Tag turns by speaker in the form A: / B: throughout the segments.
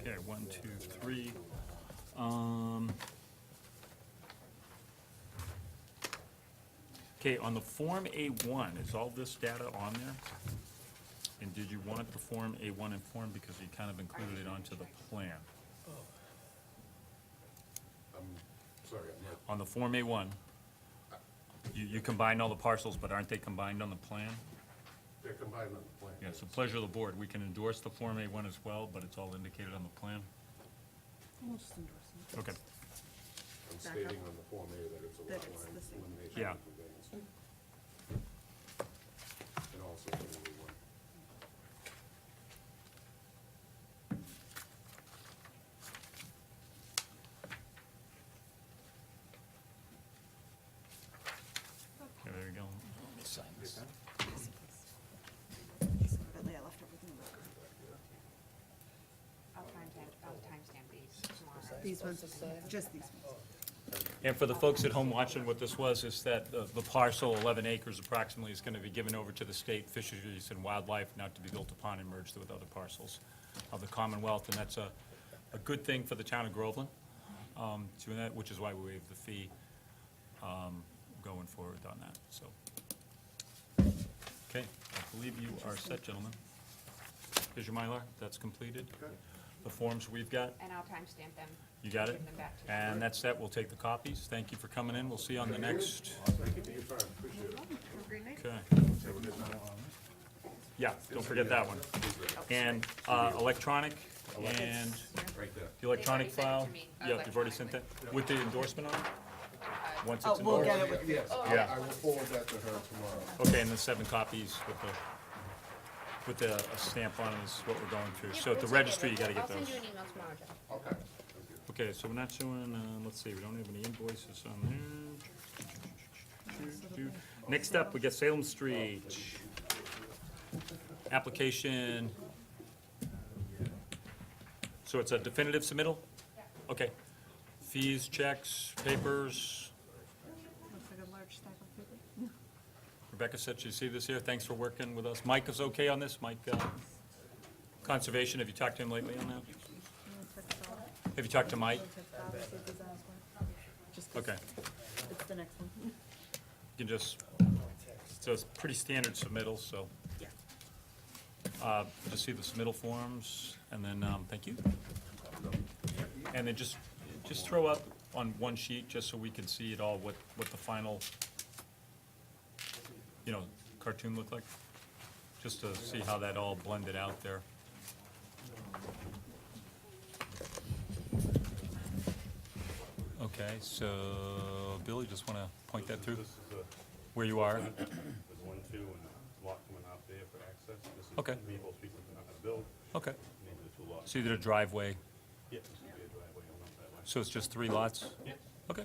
A: Okay, one, two, three. Um, Okay, on the Form A1, is all this data on there? And did you want the Form A1 in form because you kind of included it onto the plan?
B: Sorry, I'm not,
A: On the Form A1, you, you combined all the parcels, but aren't they combined on the plan?
B: they're combined on the plan.
A: Yeah, it's the pleasure of the board. We can endorse the Form A1 as well, but it's all indicated on the plan?
C: We'll just endorse it.
A: Okay.
B: I'm
C: back up.
B: stating on the Form A that it's a
C: That
B: lot
C: it's
B: line
C: the same.
B: elimination
A: Yeah.
B: of conveyance. And also the only one.
A: Yeah, there you go.
C: Yes, please. Sorry, but Leah left everything over.
D: I'll contact, I'll timestamp these tomorrow.
C: These ones, just these ones.
A: And for the folks at home watching, what this was is that the the parcel, 11 acres approximately, is going to be given over to the state fisheries and wildlife, not to be built upon and merged with other parcels of the Commonwealth, and that's a, a good thing for the town of Groveland, um, to that, which is why we waived the fee um, going forward on that, so. Okay, I believe you are set, gentlemen. Is your Mylar, that's completed? The forms we've got?
D: And I'll timestamp them.
A: You got it?
D: Give them back to you.
A: And that's that, we'll take the copies. Thank you for coming in, we'll see you on the next,
B: Thank you for your time, appreciate it.
A: okay. Yeah, don't forget that one. And uh, electronic, and
B: Right there.
A: the electronic
D: They've already
A: file?
D: sent it to me Uh,
A: Yeah, you've already sent that, with the endorsement on it? Once
C: Oh,
A: it's
C: we'll
A: endorsed?
C: get it with you.
B: Yes, I
A: Yeah.
B: I will forward that to her tomorrow.
A: Okay, and the seven copies with the, with the a stamp on it is what we're going through. So at the registry, you gotta get those.
D: I'll send you an email tomorrow, Jeff.
B: Okay, thank you.
A: Okay, so we're not showing, uh, let's see, we don't have any invoices on there. Next up, we got Salem Street. Application. So it's a definitive submittal? Okay. Fees, checks, papers.
C: Looks like a large stack of paper.
A: Rebecca said she see this here. Thanks for working with us. Mike is okay on this? Mike, uh, Conservation, have you talked to him lately on that? Have you talked to Mike?
C: Just 'cause
A: Okay.
C: It's the next one.
A: You can just, so it's pretty standard submittal, so.
C: Yeah.
A: Uh, Just see the submittal forms, and then, um, thank you. And then just, just throw up on one sheet, just so we can see it all, what, what the final, you know, cartoon looked like, just to see how that all blended out there. Okay, so, Bill, you just wanna point that through,
E: This is a,
A: where you are?
E: there's one, two, and lot coming out there for access. This is
A: Okay.
E: me, both people are not gonna build,
A: Okay,
E: maybe the two lots.
A: so you did a driveway,
E: Yeah, this would be a driveway on up that way.
A: so it's just three lots?
E: Yes.
A: Okay.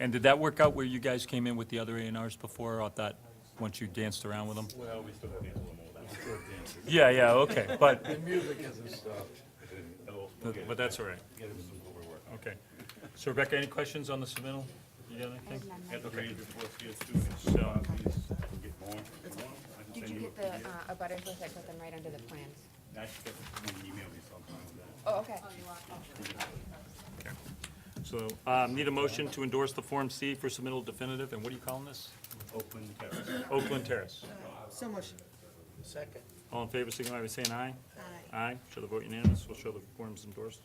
A: And did that work out where you guys came in with the other A and Rs before, I thought, once you danced around with them?
E: Well, we still have to handle them all that.
A: Yeah, yeah, okay, but,
E: Music hasn't stopped.
A: but that's all right,
E: Get him some more work.
A: okay. So Rebecca, any questions on the submittal? You got anything?
E: Get the grade before it's here too, and so, uh, please, we'll get more. I can
D: Did
E: send
D: you get the,
E: yeah.
D: uh, abutters list? I put them right under the plans.
E: I should get an email or something with that.
D: Oh, okay.
A: So, um, need a motion to endorse the Form C for submittal definitive, and what are you calling this?
E: Oakland Terrace.
A: Oakland Terrace.
C: So motion.
F: Second.
A: All in favor, signify by saying aye.
C: Aye.
A: Aye, show the vote unanimous, we'll show the forms endorsed.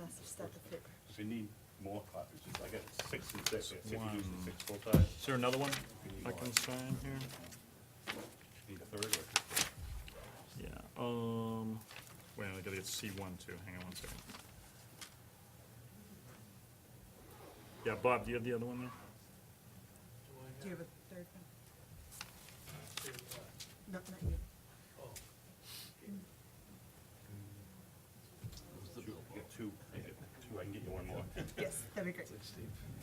C: Massive stack of paper.
E: If you need more copies, I got six and six, if you use
A: One.
E: the six full time,
A: Is there another one
E: you need
A: I
E: more.
A: can sign here?
E: Need a third or?
A: Yeah, um, wait, I gotta get C one too, hang on one second. Yeah, Bob, do you have the other one there?
C: Do you have a third one? No, not you.
E: You Get two, I get two, I can get you one more.
C: Yes, that'd be great.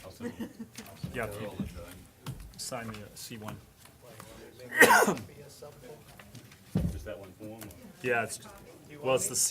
E: I'll send you.
A: Yeah, if you sign the C one.
F: Be a simple-
E: Just that one form or?
A: Yeah, it's, well, it's the C